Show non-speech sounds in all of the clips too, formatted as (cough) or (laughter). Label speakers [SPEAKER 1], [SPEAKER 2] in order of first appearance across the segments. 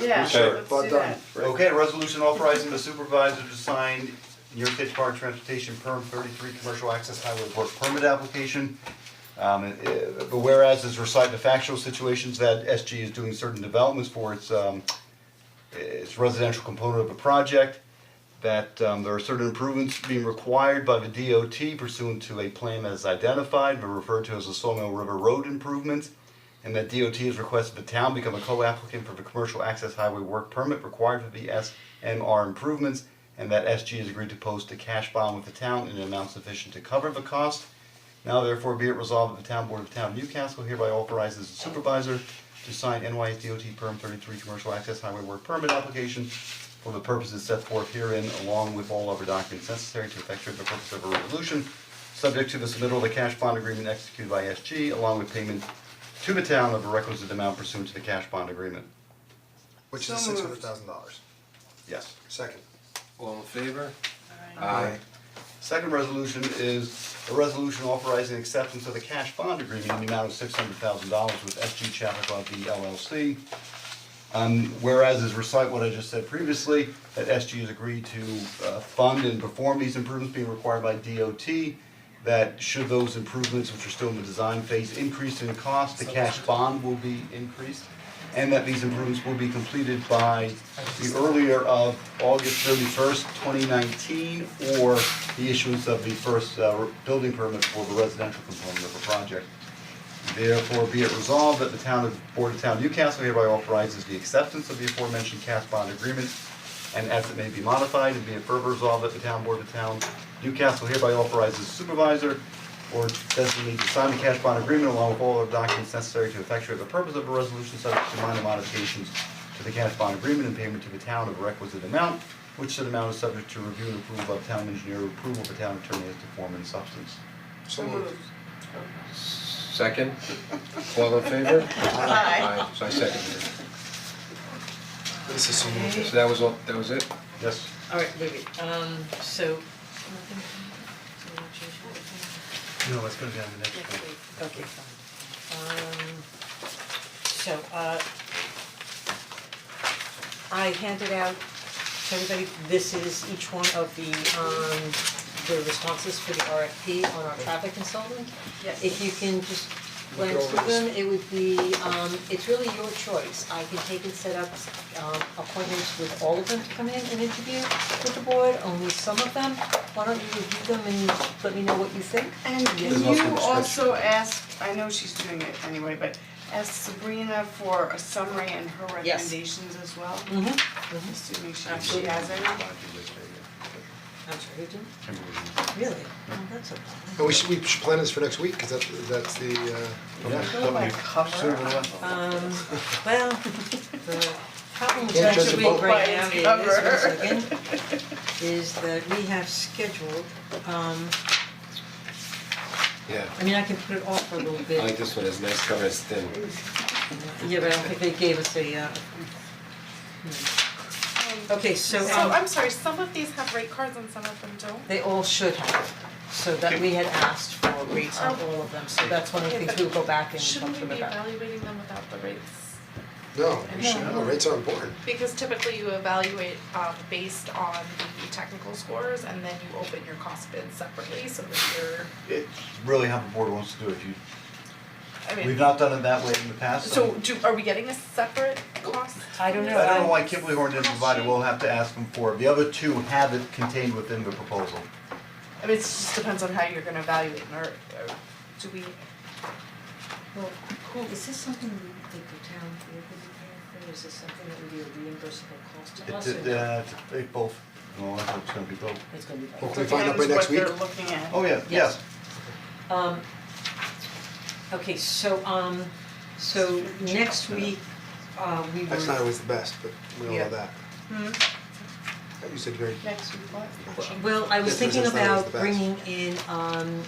[SPEAKER 1] Yeah,
[SPEAKER 2] Okay.
[SPEAKER 1] let's
[SPEAKER 3] Well
[SPEAKER 1] do
[SPEAKER 3] done.
[SPEAKER 1] that.
[SPEAKER 2] Okay, resolution authorizing the supervisor to sign New York State Department of Transportation Perm thirty-three Commercial Access Highway Work Permit Application. Um, and, uh, but whereas is recite the factual situations that SG is doing certain developments for its, um, its residential component of the project, that, um, there are certain improvements being required by the DOT pursuant to a plan that is identified, but referred to as the Sawmill River Road improvements and that DOT has requested the town become a co-applicant for the commercial access highway work permit required for the SMR improvements, and that SG has agreed to post a cash bond with the town in an amount sufficient to cover the cost. Now therefore be it resolved that the town board of the town of Newcastle hereby authorizes the supervisor to sign NYS DOT perm thirty-three commercial access highway work permit application for the purposes set forth herein, along with all other documents necessary to effectuate the purpose of a resolution, subject to the submittal of the cash bond agreement executed by SG, along with payment to the town of a requisite amount pursuant to the cash bond agreement.
[SPEAKER 3] Which is
[SPEAKER 1] So
[SPEAKER 3] six
[SPEAKER 1] moved.
[SPEAKER 3] hundred thousand dollars,
[SPEAKER 2] Yes.
[SPEAKER 3] second.
[SPEAKER 4] All in favor?
[SPEAKER 2] Second resolution is a resolution authorizing acceptance of the cash bond agreement in the amount of six hundred thousand dollars with SG Chappaqua V LLC. Um, whereas is recite what I just said previously, that SG has agreed to uh, fund and perform these improvements being required by DOT. That should those improvements, which are still in the design phase, increase in cost, the cash bond will be increased. And that these improvements will be completed by the earlier of August thirty first, twenty nineteen, or the issuance of the first uh, building permit for the residential component of the project. Therefore, be it resolved that the town of, Board of Town of Newcastle hereby authorizes the acceptance of the aforementioned cash bond agreement and as it may be modified, and be it further resolved that the town board of the town Newcastle hereby authorizes supervisor or designee to sign the cash bond agreement along with all other documents necessary to effectuate the purpose of a resolution subject to minor modifications to the cash bond agreement and payment to the town of a requisite amount, which said amount is subject to review and approval by the town engineer, approval of the town attorney as to form and substance.
[SPEAKER 3] So moved.
[SPEAKER 4] Second? All in favor?
[SPEAKER 1] Aye.
[SPEAKER 4] Aye, so I seconded it.
[SPEAKER 3] This is so moved.
[SPEAKER 4] So that was all, that was it?
[SPEAKER 2] Yes,
[SPEAKER 5] Alright, wait, wait, um, so.
[SPEAKER 2] no, it's gonna be on the next one.
[SPEAKER 5] Okay, fine. Um, so, uh, I handed out to everybody, this is each one of the, um, the responses for the RFP on our traffic consultant.
[SPEAKER 1] Yes.
[SPEAKER 5] If you can just glance
[SPEAKER 3] over
[SPEAKER 5] through
[SPEAKER 3] this.
[SPEAKER 5] them, it would be, um, it's really your choice, I can take and set up, um, appointments with all of them to come in and interview with the board, only some of them. Why don't you review them and let me know what you think?
[SPEAKER 1] And
[SPEAKER 2] There's
[SPEAKER 1] can
[SPEAKER 2] also
[SPEAKER 1] you
[SPEAKER 2] discussion.
[SPEAKER 1] also ask, I know she's doing it anyway, but ask Sabrina for a summary and her
[SPEAKER 5] Yes.
[SPEAKER 1] recommendations as well?
[SPEAKER 5] Mm-hmm.
[SPEAKER 1] Assuming she she
[SPEAKER 5] Absolutely.
[SPEAKER 1] has any.
[SPEAKER 5] I'm sorry, who didn't?
[SPEAKER 2] Kimberly.
[SPEAKER 5] Really? Oh, that's a problem.
[SPEAKER 3] And we should, we should plan this for next week, cause that's, that's the, uh,
[SPEAKER 2] Yeah,
[SPEAKER 1] Fill my cover
[SPEAKER 2] Sure,
[SPEAKER 1] up.
[SPEAKER 2] yeah.
[SPEAKER 5] Um, well, (laughs) the problem with
[SPEAKER 3] Can't
[SPEAKER 5] that
[SPEAKER 3] judge a
[SPEAKER 5] week
[SPEAKER 3] book
[SPEAKER 1] by
[SPEAKER 5] right now
[SPEAKER 1] its
[SPEAKER 5] is, one
[SPEAKER 1] cover.
[SPEAKER 5] second, is that we have scheduled, um,
[SPEAKER 4] Yeah.
[SPEAKER 5] I mean, I can put it off for a little
[SPEAKER 4] I
[SPEAKER 5] bit.
[SPEAKER 4] like this one, it's nice cover, it's thin.
[SPEAKER 5] Yeah, but I don't think they gave us a, uh, okay, so,
[SPEAKER 6] So
[SPEAKER 5] um,
[SPEAKER 6] I'm sorry, some of these have rate cards and some of them don't.
[SPEAKER 5] they all should have, so that we had asked for rates on all of them, so that's one of the things we'll go back and talk
[SPEAKER 6] Oh. Shouldn't
[SPEAKER 5] to
[SPEAKER 6] we
[SPEAKER 5] them
[SPEAKER 6] be
[SPEAKER 5] about.
[SPEAKER 6] evaluating them without the rates?
[SPEAKER 3] no, we should, no, rates are important.
[SPEAKER 6] Because typically you evaluate um based on the technical scores and then you open your cost bid separately so that you're,
[SPEAKER 2] It's really how the board wants to do it, you,
[SPEAKER 6] I
[SPEAKER 2] we've
[SPEAKER 6] mean,
[SPEAKER 2] not done it that way in the past, so.
[SPEAKER 6] so do, are we getting a separate cost?
[SPEAKER 5] I don't know,
[SPEAKER 2] I don't know
[SPEAKER 5] I'm-
[SPEAKER 2] why Kimberly Horn didn't provide it, we'll have to ask them for it, the other two have it contained within the proposal.
[SPEAKER 6] I mean, it just depends on how you're gonna evaluate them or or do we,
[SPEAKER 5] Well, cool, is this something that the town would be paying for, is this something that would be a reimbursable cost to us? or
[SPEAKER 2] It, uh, they both, no, Oh, I think it's gonna be both.
[SPEAKER 5] It's gonna be.
[SPEAKER 3] Well, can we find out by next week?
[SPEAKER 1] Depends what they're looking at.
[SPEAKER 2] Oh, yeah, yes,
[SPEAKER 5] Yes. Um, okay, so, um, so next week, uh, we were.
[SPEAKER 3] That's not always the best, but we all
[SPEAKER 1] Yeah.
[SPEAKER 3] know that. That You said very,
[SPEAKER 1] Hmm? Next week, what?
[SPEAKER 5] Well, I was
[SPEAKER 3] This was
[SPEAKER 5] thinking
[SPEAKER 3] just- that was
[SPEAKER 5] about
[SPEAKER 3] the best.
[SPEAKER 5] bringing in, um,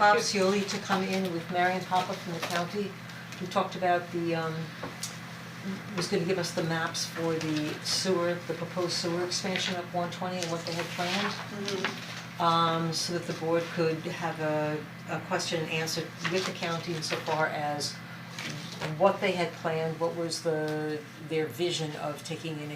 [SPEAKER 5] Bob Cioli to come in with Marion Hopper from the county, who talked about the, um, was gonna give us the maps for the sewer, the proposed sewer expansion up one twenty and what they had planned.
[SPEAKER 1] Hmm.
[SPEAKER 5] Um, so that the board could have a, a question and answer with the county insofar as what they had planned, what was the, their vision of taking in